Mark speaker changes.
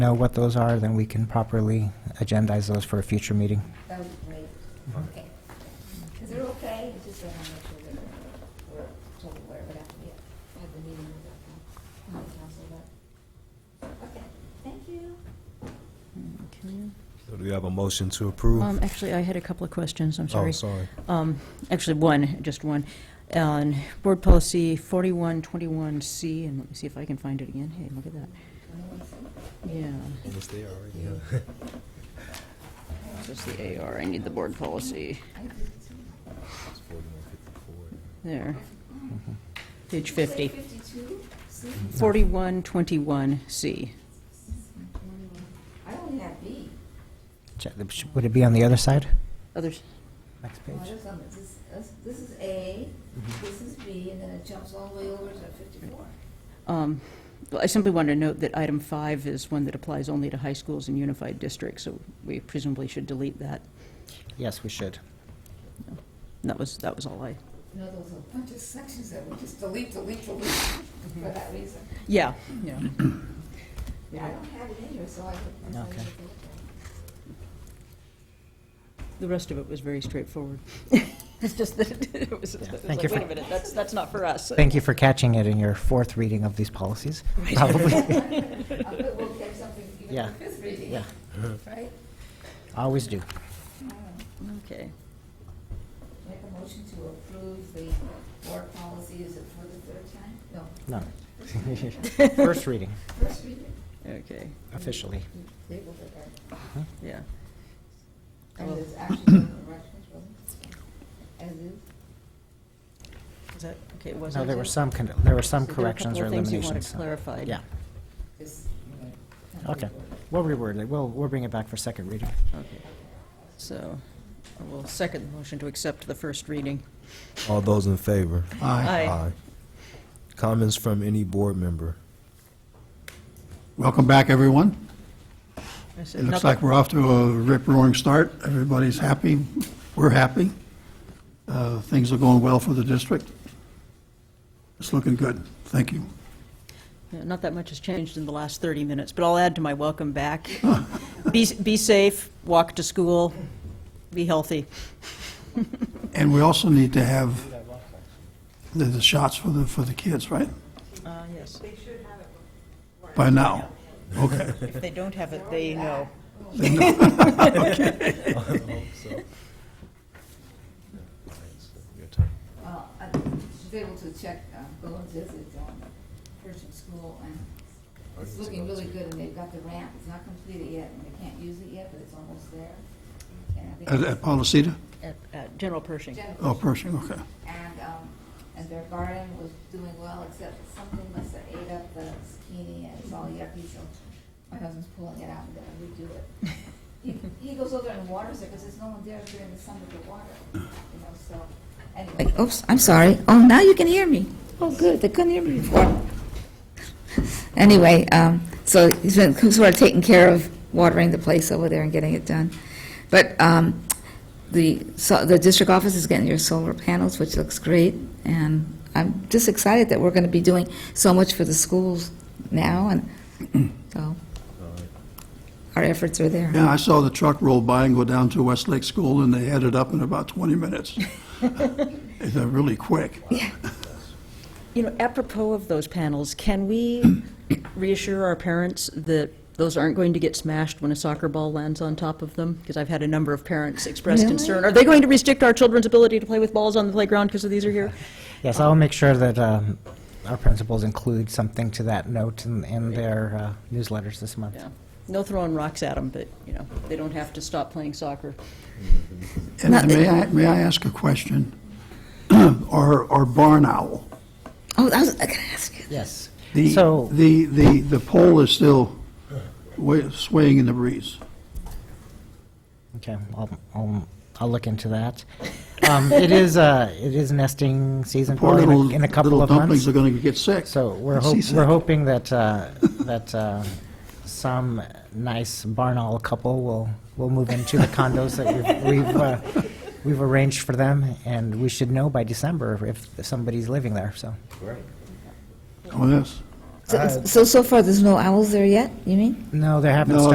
Speaker 1: know what those are, then we can properly agendize those for a future meeting.
Speaker 2: That would be great.
Speaker 1: Mm-hmm.
Speaker 2: Okay. Is it okay? It's Just want to make sure that we're told where it would have to be, at the meeting with the uh, council, but, okay, thank you.
Speaker 3: So do we have a motion to approve?
Speaker 4: Um, actually, I had a couple of questions, I'm
Speaker 3: Oh,
Speaker 4: sorry.
Speaker 3: sorry.
Speaker 4: Um, actually, one, just one. On Board Policy 4121C, and let me see if I can find it again. Hey, look at that. Yeah,
Speaker 3: Yes, they are right here.
Speaker 4: this is the AR, I need the board policy.
Speaker 3: It's 4154.
Speaker 4: There. Page 50.
Speaker 2: Fifty-two, C,
Speaker 4: 4121C.
Speaker 2: I only have B.
Speaker 1: Check- Would it be on the other side?
Speaker 4: Others?
Speaker 1: Next
Speaker 2: Well,
Speaker 1: page?
Speaker 2: there's some- this- this- This is A,
Speaker 1: Mm-hmm.
Speaker 2: this is B, and then it jumps all the way over to fifty-four.
Speaker 4: Um, well, I simply want to note that item five is one that applies only to high schools and unified districts, so we presumably should delete that.
Speaker 1: Yes, we should.
Speaker 4: And That was, that was all I,
Speaker 2: You know, those are a bunch of sections that we just delete, delete, delete
Speaker 1: Mm-hmm.
Speaker 2: for that reason.
Speaker 4: yeah, yeah.
Speaker 2: Yeah, I don't have it in here, so I. I'm sorry.
Speaker 1: Okay.
Speaker 4: The rest of it was very straightforward. It's just that it- it was, it was
Speaker 1: Thank
Speaker 4: like,
Speaker 1: you
Speaker 4: wait a
Speaker 1: for-
Speaker 4: minute, that's, that's not for us.
Speaker 1: Thank you for catching it in your fourth reading of these policies. Probably,
Speaker 2: I'll put- We'll get something even
Speaker 1: Yeah.
Speaker 2: for fifth reading,
Speaker 1: yeah,
Speaker 2: right?
Speaker 1: always do.
Speaker 4: Okay.
Speaker 2: Make a motion to approve the board policy, is it for the third time? No,
Speaker 1: No. First reading,
Speaker 2: first reading.
Speaker 4: Okay,
Speaker 1: officially.
Speaker 2: Labeled it that.
Speaker 4: yeah.
Speaker 2: And
Speaker 4: Well-
Speaker 2: there's actually no corrections, wasn't it? As is.
Speaker 4: Is that, okay, was
Speaker 1: No, there were
Speaker 4: it?
Speaker 1: some, con- there were some
Speaker 4: So there were a couple
Speaker 1: corrections or
Speaker 4: of things you
Speaker 1: eliminations.
Speaker 4: wanted
Speaker 1: so-
Speaker 4: clarified.
Speaker 1: Yeah,
Speaker 2: This, you know, kind of
Speaker 1: okay.
Speaker 2: labeled.
Speaker 1: We'll reword it. We'll, we'll bring it back for second reading.
Speaker 4: Okay. So, I will second the motion to accept the first reading.
Speaker 3: All those in favor?
Speaker 4: Aye.
Speaker 3: Comments from any board member?
Speaker 5: Welcome back, everyone.
Speaker 4: I said
Speaker 5: It looks
Speaker 4: nothing-
Speaker 5: like we're off to a rip-roaring start. Everybody's happy. We're happy. Uh, Things are going well for the district. It's looking good. Thank you.
Speaker 4: Yeah, Not that much has changed in the last 30 minutes, but I'll add to my welcome back. Be, be safe, walk to school, be healthy.
Speaker 5: And we also need to have the- the shots for the, for the kids, right?
Speaker 4: Uh, yes.
Speaker 5: By now. Okay.
Speaker 4: If they don't have it, they know.
Speaker 3: Your turn.
Speaker 2: Well, uh, I was able to check, um, go and visit um, Pershing School, and it's looking really good, and they've got the ramp, it's not completed yet, and they can't use it yet, but it's almost there. And I think
Speaker 5: At,
Speaker 2: it's-
Speaker 5: at Policita?
Speaker 4: At- at General Pershing.
Speaker 2: Jennifer
Speaker 5: Oh, Pershing, okay.
Speaker 2: and, um, and their garden was doing well, except something must have ate up the zucchini and it's all yucky, so my husband's pulling it out and gonna redo it. He, he goes over and waters it, because there's no one there during the summer to water, you know, so, anyway. Oops, I'm sorry, oh, now you can hear me, oh, good, they couldn't hear me before. Anyway, um, so he's been sort of taking care of watering the place over there and getting it done. But, um, the, so the district office is getting your solar panels, which looks great, and I'm just excited that we're going to be doing so much for the schools now, and so our efforts are there.
Speaker 5: Yeah, I saw the truck roll by and go down to Westlake School, and they had it up in about 20 minutes. They're really quick.
Speaker 4: You know, apropos of those panels, can we reassure our parents that those aren't going to get smashed when a soccer ball lands on top of them? Because I've had a number of parents express concern. Are they going to restrict our children's ability to play with balls on the playground because of these are here?
Speaker 1: Yes, I'll make sure that um, our principals include something to that note in, in their uh, newsletters this month.
Speaker 4: Yeah. No throwing rocks at them, but, you know, they don't have to stop playing soccer.
Speaker 5: And and may I, may I ask a question? Or, or barn owl?
Speaker 2: Oh, I was going to ask you.
Speaker 1: Yes.
Speaker 5: The,
Speaker 1: So-
Speaker 5: the, the, the pole is still wa- swaying in the breeze.
Speaker 1: Okay, I'll, I'll, I'll look into that. Um, It is, uh, it is nesting season
Speaker 5: Poor
Speaker 1: probably in a-
Speaker 5: little,
Speaker 1: in a couple
Speaker 5: little
Speaker 1: of
Speaker 5: dumplings
Speaker 1: months.
Speaker 5: are going to get sick.
Speaker 1: So we're
Speaker 5: See
Speaker 1: hoping,
Speaker 5: sick.
Speaker 1: we're hoping that, uh, that uh, some nice barn owl couple will, will move into the condos that we've- we've, uh, we've arranged for them, and we should know by December if somebody's living there, so.
Speaker 5: Oh, yes.
Speaker 6: So, so far, there's no owls there yet, you mean?
Speaker 2: No, there haven't
Speaker 1: No,